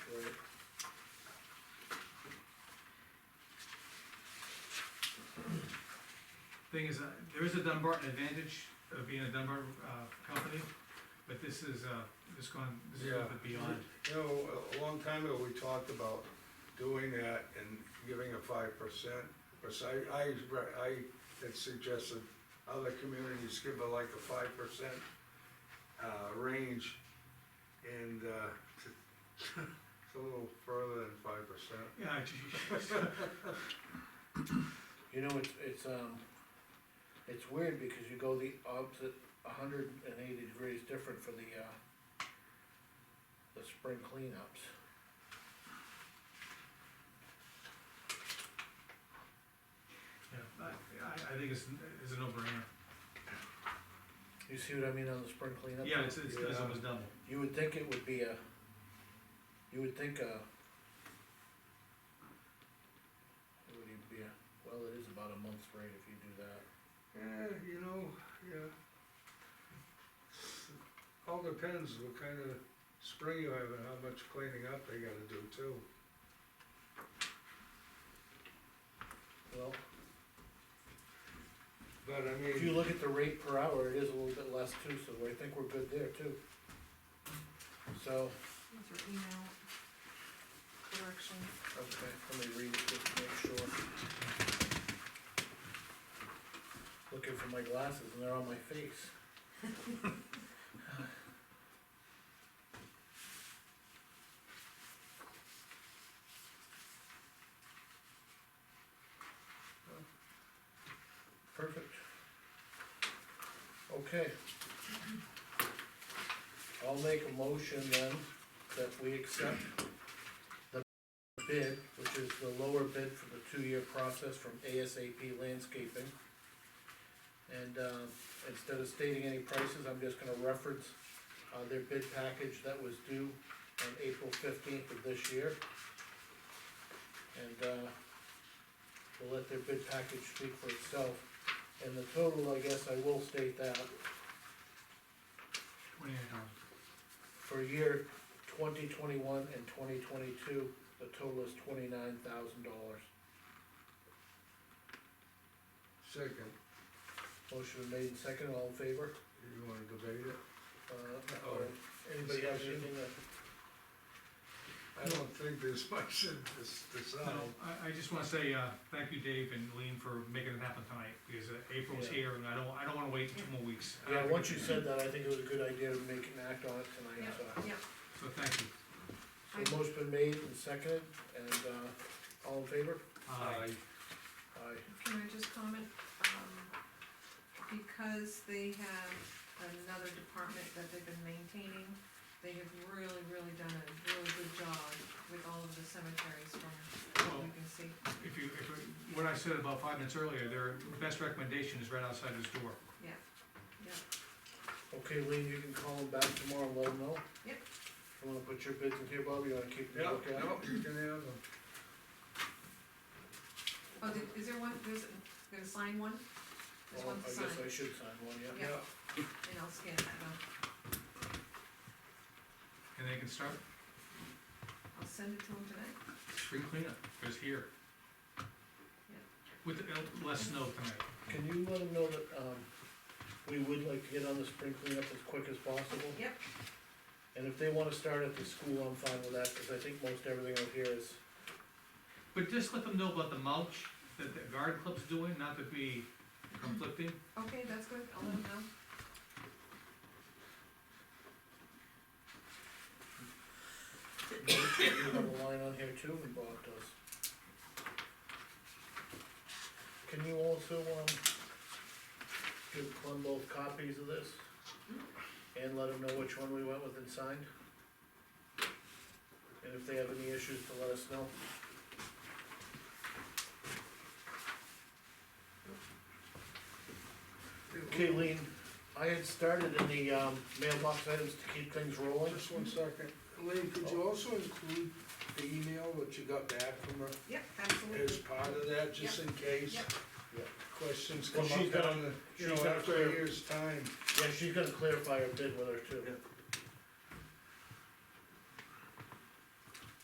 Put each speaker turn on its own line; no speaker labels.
thing is, uh, there is a Dunbarton advantage of being a Dunbar, uh, company, but this is, uh, this gone, this is a little
Yeah.
bit beyond.
You know, a long time ago, we talked about doing that and giving a five percent, because I, I, re- I had suggested other communities give a like a five percent, uh, range, and, uh, it's a little further than five percent.
Yeah, I ju-
You know, it's, it's, um, it's weird because you go the opposite, hundred and eighty degrees different for the, uh, the spring cleanups.
yeah, I, I- I think it's, it's a no-brainer.
You see what I mean on the spring cleanup?
Yeah, it's, it's, it's
Yeah.
almost double.
You would think it would be a, you would think a. It would even be a, well, it is about a month's rate if you do that.
Yeah, Eh, you know, yeah. All depends what kind of spring you have and how much cleaning up they gotta do too.
Well,
But I mean.
if you look at the rate per hour, it is a little bit less too, so I think we're good there too. So,
These are email corrections.
Okay, let me read it just to make sure. Looking for my glasses and they're on my face. Perfect. Okay. I'll make a motion then that we accept bid, which is the lower bid for the two-year process from ASAP Landscaping. And, uh, instead of stating any prices, I'm just gonna reference, uh, their bid package that was due on April fifteenth of this year. And, uh, we'll let their bid package speak for itself, and the total, I guess I will state that,
Twenty-nine dollars.
for year twenty twenty-one and twenty twenty-two, the total is twenty-nine thousand dollars.
Second,
Motion made and seconded, all in favor?
you wanna debate it?
Uh,
Oh.
or Anybody have anything that?
I don't think there's much in this, this,
No,
out.
I, I just wanna say, uh, thank you, Dave and Lean, for making it happen tonight, because uh, April's
Yeah.
here, and I don't, I don't wanna wait two more weeks.
Yeah, once you said that, I think it was a good idea to make an act on it tonight, so.
Yep,
So thank you.
So motion been made and seconded, and, uh, all in favor?
Uh,
Aye.
can I just comment? Um, because they have another department that they've been maintaining, they have really, really done a really good job with all of the cemeteries from what we can see.
If you, if, you- what I said about five minutes earlier, their best recommendation is right outside this door.
Okay, Lean, you can call them back tomorrow, and let them know.
Yep.
You wanna put your bids in here, Bob, you wanna keep the
Yeah,
lookout?
no, you can have them.
Oh, did, is there one, there's, gonna sign one? There's
Well,
one to
I
sign,
guess I should sign one, yeah.
Yeah. and I'll scan that one.
And they can start
I'll send it to them tonight.
spring cleanup, because here. With uh, less snow tonight.
Can you let them know that, um, we would like to get on the spring cleanup as quick as possible?
Yep.
And if they wanna start at the school, I'm fine with that, cause I think most everything out here is
But just let them know about the mulch that the garden club's doing, not to be conflicting.
Okay, that's good, I'll let them know.
You have a line on here too, and Bob does. Can you also, um, give Clem both copies of this? And let him know which one we went with and signed? And if they have any issues, to let us know. Okay, Lean, I had started in the, um, mailbox items to keep things rolling.
Just one second, Elaine, could you also include the email that you got back from her
Yep,
as
absolutely.
part of that, just in case?
Yep.
Yep.
Questions
Well,
come
she's
up
gotta-
on the, you
she's
know,
gotta
after
clear-
a year's time.
Yeah, she's gonna clarify her bid with her too.